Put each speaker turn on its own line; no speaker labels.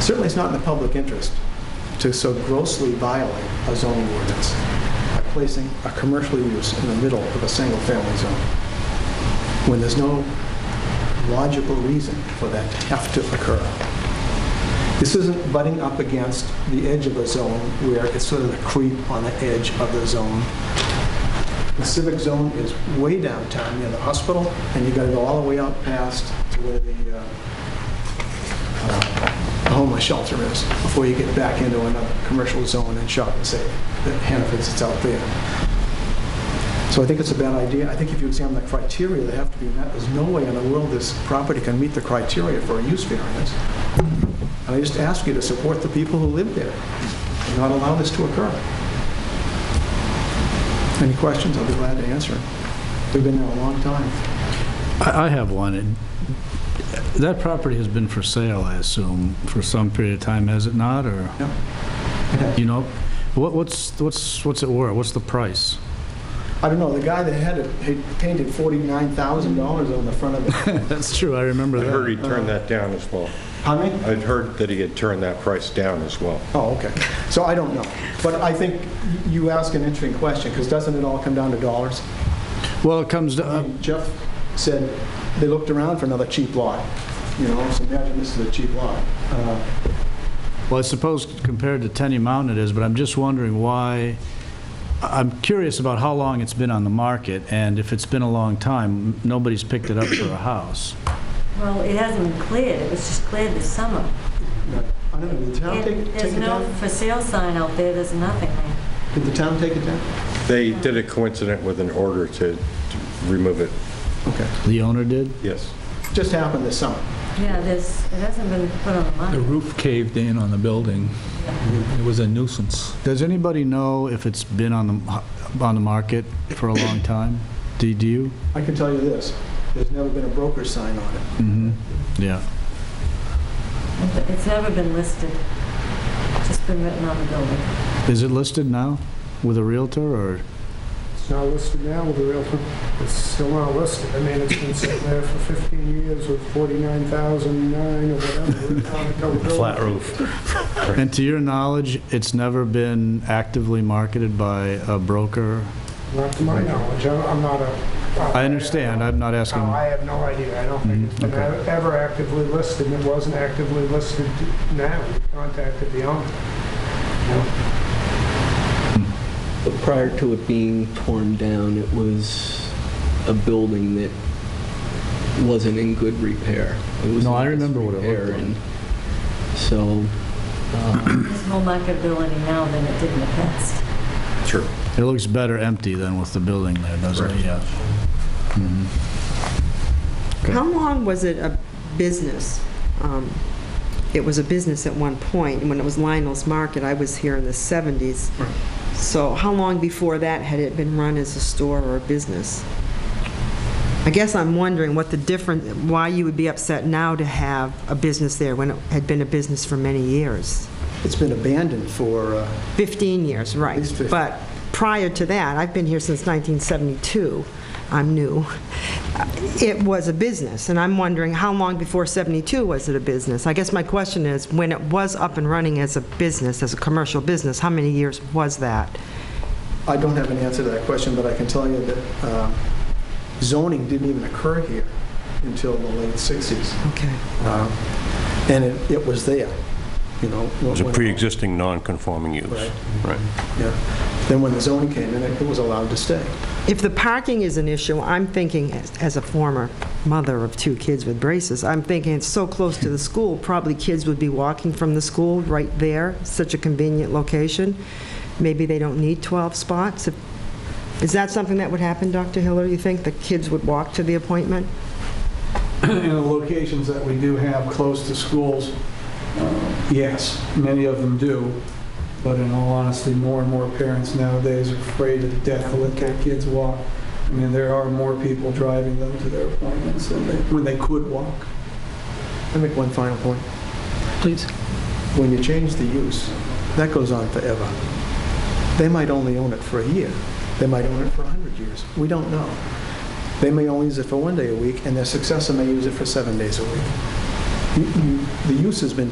Certainly, it's not in the public interest to so grossly violate a zoning ordinance by placing a commercial use in the middle of a single-family zone, when there's no logical reason for that to have to occur. This isn't butting up against the edge of a zone where it's sort of a creep on the edge of the zone. The civic zone is way downtown near the hospital, and you gotta go all the way out past to where the uh, uh, homeless shelter is before you get back into another commercial zone and shop and say that Hannaford's it's out there. So I think it's a bad idea. I think if you examine the criteria that have to be met, there's no way in the world this property can meet the criteria for a use variance. And I just ask you to support the people who live there and not allow this to occur. Any questions, I'll be glad to answer. We've been there a long time.
I I have one. It- That property has been for sale, I assume, for some period of time, has it not, or?
No.
You know, what- what's, what's, what's it worth? What's the price?
I don't know, the guy that had it, he painted $49,000 on the front of it.
That's true, I remember
I heard
that.
he turned that down as well.
Pardon me?
I'd heard that he had turned that price down as well.
Oh, okay. So I don't know. But I think you ask an interesting question, because doesn't it all come down to dollars?
Well, it comes, to- uh,
I mean, Jeff said they looked around for another cheap lot, you know, so imagine this is a cheap lot. Uh,
well, I suppose compared to Tenny Mountain it is, but I'm just wondering why, I- I'm curious about how long it's been on the market, and if it's been a long time, nobody's picked it up for a house.
Well, it hasn't been cleared, it was just cleared this summer.
I don't know, did the town
And
take take
There's
it
no
down?
for sale sign out there, there's nothing there.
Did the town take it down?
They did it coincident with an order to to remove it,
Okay.
The owner did?
yes.
Just happened this summer.
Yeah, there's, it hasn't been put on the
The
market.
roof caved in on the building. It was a nuisance.
Does anybody know if it's been on the, on the market for a long time? Do do you?
I can tell you this, there's never been a broker sign on it.
Mm-hmm. Yeah.
It's never been listed, just been written on the building.
Is it listed now with a Realtor, or?
It's not listed now with the Realtor. It's still not listed. I mean, it's been sitting there for 15 years with 49,009 or whatever.
roof.
And to your knowledge, it's never been actively marketed by a broker?
Not to my knowledge. I'm I'm not a...
I understand, I'm not
No, I
asking,
have no idea. I don't think it's been
Mm, okay.
e- ever actively listed. It wasn't actively listed now. We contacted the owner.
But prior to it being torn down, it was a building that wasn't in good repair. It was
No, I
in
remember what it looked
disrepair,
like.
and So, uh,
There's more marketability now than it did in the past.
Sure.
it looks better empty than with the building there, doesn't it? Yeah. Mhm.
How long was it a business? Um, It was a business at one point, and when it was Lionel's Market, I was here in the 70s. So how long before that had it been run as a store or a business? I guess I'm wondering what the difference, why you would be upset now to have a business there when it had been a business for many years.
It's been abandoned for, uh,
15 years, right.
least 15.
But prior to that, I've been here since 1972, I'm new, Uh, it was a business, and I'm wondering how long before 72 was it a business? I guess my question is, when it was up and running as a business, as a commercial business, how many years was that?
I don't have an answer to that question, but I can tell you that um, zoning didn't even occur here until the late 60s.
Okay.
Um, And it, it was there, you know. It
It's a pre-existing non-conforming use. Right.
Yeah. Then when the zoning came in, it it was allowed to stay.
If the parking is an issue, I'm thinking, as- as a former mother of two kids with braces, I'm thinking it's so close to the school, probably kids would be walking from the school right there, such a convenient location. Maybe they don't need 12 spots. If- Is that something that would happen, Dr. Hiller, you think? The kids would walk to the appointment?
in the locations that we do have close to schools, uh, yes, many of them do. But in all honesty, more and more parents nowadays are afraid to death to let their kids walk. I mean, there are more people driving them to their appointments than they, when they could walk.
Let me make one final point.
please.
When you change the use, that goes on forever. They might only own it for a year. They might own it for 100 years. We don't know. They may only use it for one day a week, and their successor may use it for seven days a week. You- you- The use has been